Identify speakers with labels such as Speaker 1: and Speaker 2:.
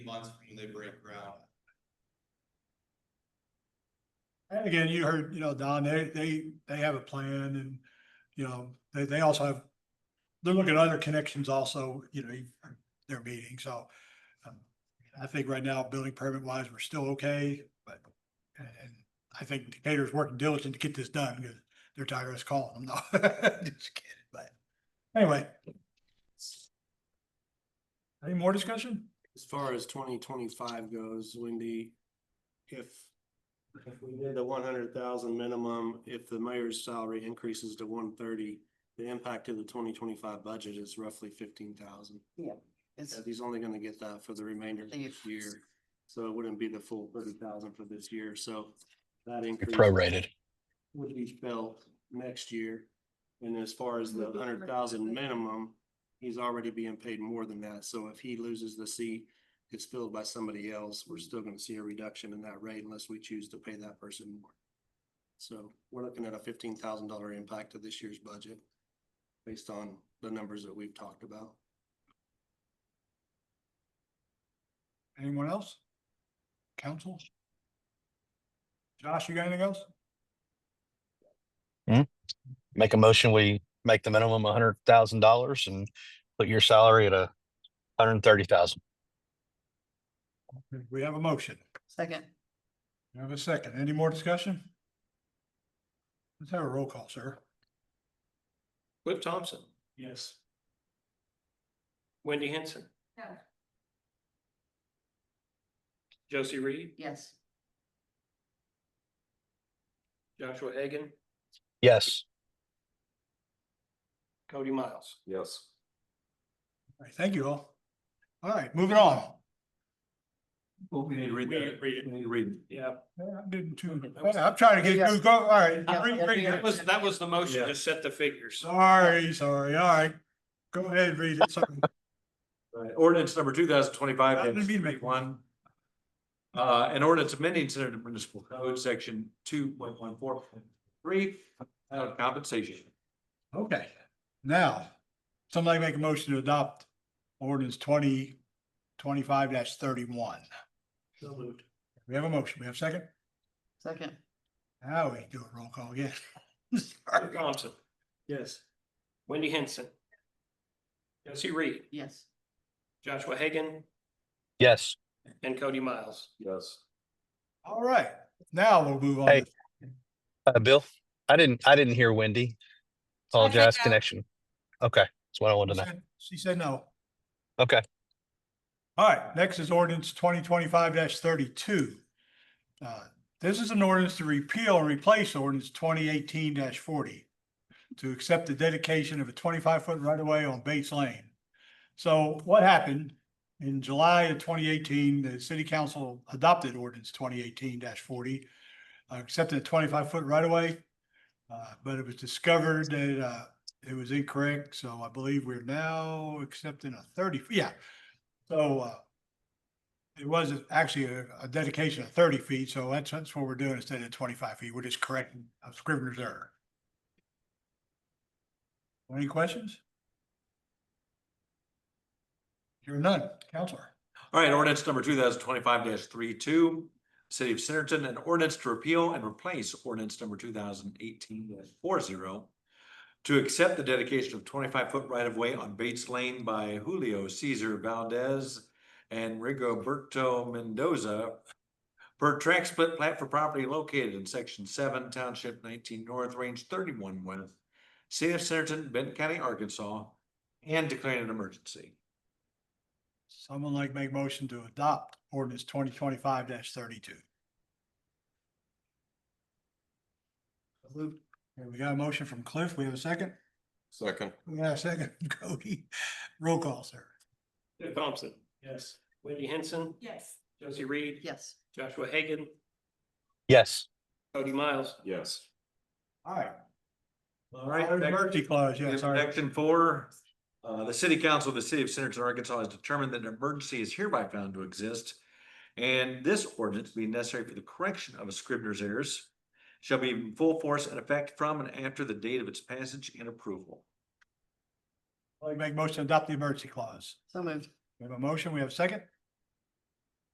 Speaker 1: months from when they break ground.
Speaker 2: And again, you heard, you know, Don, they, they, they have a plan and, you know, they, they also have, they're looking at other connections also, you know, their meeting, so. um, I think right now, building permit wise, we're still okay, but, and and I think Decatur's working diligent to get this done, because they're tired of us calling them, no, just kidding, but, anyway. Any more discussion?
Speaker 3: As far as twenty twenty-five goes, Wendy, if, if we did the one hundred thousand minimum, if the mayor's salary increases to one thirty, the impact to the twenty twenty-five budget is roughly fifteen thousand.
Speaker 4: It's,
Speaker 3: He's only gonna get that for the remainder of
Speaker 4: Thank you.
Speaker 3: this year, so it wouldn't be the full thirty thousand for this year, so that increase
Speaker 5: prorated.
Speaker 3: would be felt next year. And as far as the hundred thousand minimum, he's already being paid more than that. So if he loses the seat, it's filled by somebody else, we're still gonna see a reduction in that rate unless we choose to pay that person more. So we're looking at a fifteen thousand dollar impact to this year's budget based on the numbers that we've talked about.
Speaker 2: Anyone else? Council? Josh, you got anything else?
Speaker 5: Make a motion, we make the minimum a hundred thousand dollars and put your salary at a hundred and thirty thousand.
Speaker 2: We have a motion.
Speaker 4: second,
Speaker 2: We have a second. Any more discussion? Let's have a roll call, sir.
Speaker 6: Cliff Thompson,
Speaker 3: Yes.
Speaker 6: Wendy Henson.
Speaker 4: No.
Speaker 6: Josie Reed,
Speaker 4: yes,
Speaker 6: Joshua Egan,
Speaker 5: Yes,
Speaker 6: Cody Miles.
Speaker 7: Yes.
Speaker 2: All right, Thank you all. All right, moving on.
Speaker 7: Well, we need to read
Speaker 6: We need to
Speaker 7: that.
Speaker 6: read it.
Speaker 7: We need to read.
Speaker 6: Yeah,
Speaker 2: I'm getting too, I'm trying to get, through. go, all right.
Speaker 4: Yeah,
Speaker 2: Read- read
Speaker 6: that
Speaker 2: it.
Speaker 6: was, that was the motion
Speaker 7: Yeah.
Speaker 6: to set the figures.
Speaker 2: Sorry, sorry, all right. Go ahead, read it. Sorry.
Speaker 7: Right, ordinance number two thousand
Speaker 2: I
Speaker 7: twenty-five
Speaker 2: didn't mean to make-
Speaker 7: one. Uh, an ordinance amending Center Municipal Code, section two point one four point three, out of compensation.
Speaker 2: Okay, now, somebody make a motion to adopt ordinance twenty twenty-five thirty-one.
Speaker 3: So moved.
Speaker 2: We have a motion. We have a second?
Speaker 4: second,
Speaker 2: Now we do a roll call again.
Speaker 6: Cliff Thompson,
Speaker 3: Yes.
Speaker 6: Wendy Henson. Josie Reed,
Speaker 4: yes,
Speaker 6: Joshua Hagan,
Speaker 5: yes.
Speaker 6: and Cody Miles.
Speaker 7: Yes.
Speaker 2: All right, now we'll move on.
Speaker 5: Hey. Uh, Bill, I didn't, I didn't hear Wendy. Apologize, connection. Okay, that's what I wanted
Speaker 2: She
Speaker 5: to know.
Speaker 2: said- She said no.
Speaker 5: Okay.
Speaker 2: All right, next is ordinance twenty twenty-five thirty-two. Uh, This is an ordinance to repeal and replace ordinance twenty eighteen forty to accept the dedication of a twenty-five foot right-of-way on Bates Lane. So what happened? In July of twenty eighteen, the city council adopted ordinance twenty eighteen forty, accepting a twenty-five foot right-of-way. Uh, But it was discovered that uh, it was incorrect, so I believe we're now accepting a thirty, yeah. So, uh, it was actually a, a dedication of thirty feet, so that's, that's what we're doing instead of twenty-five feet. We're just correcting a scrivener's error. Any questions? Here are none, Counselor.
Speaker 7: All right, ordinance number two thousand twenty-five 32 City of Centerton, an ordinance to repeal and replace ordinance number two thousand eighteen four zero to accept the dedication of twenty-five foot right-of-way on Bates Lane by Julio Cesar Valdez and Rigoberto Mendoza per track split plat for property located in section seven, township nineteen north, range thirty-one west, City of Centerton, Benton County, Arkansas, and declaring an emergency.
Speaker 2: Someone like make motion to adopt ordinance twenty twenty-five thirty-two. Okay, we got a motion from Cliff. We have a second?
Speaker 7: Second.
Speaker 2: We got a second, from Cody. Roll call, sir.
Speaker 6: Cliff Thompson. Yes. Wendy Henson,
Speaker 8: Yes.
Speaker 6: Josie Reed,
Speaker 4: yes,
Speaker 6: Joshua Hagan,
Speaker 5: Yes,
Speaker 6: Cody Miles.
Speaker 7: Yes.
Speaker 2: All right.
Speaker 7: All right.
Speaker 2: Oh,
Speaker 7: next-
Speaker 2: Emergency clause, yeah, sorry.
Speaker 7: Section four, uh, the city council of the city of Centerton, Arkansas has determined that an emergency is hereby found to exist. And this ordinance being necessary for the correction of a scrivener's errors shall be in full force and effect from and after the date of its passage and approval.
Speaker 2: I'll Make motion to adopt the emergency clause.
Speaker 4: so moved,
Speaker 2: We have a motion, we have a second?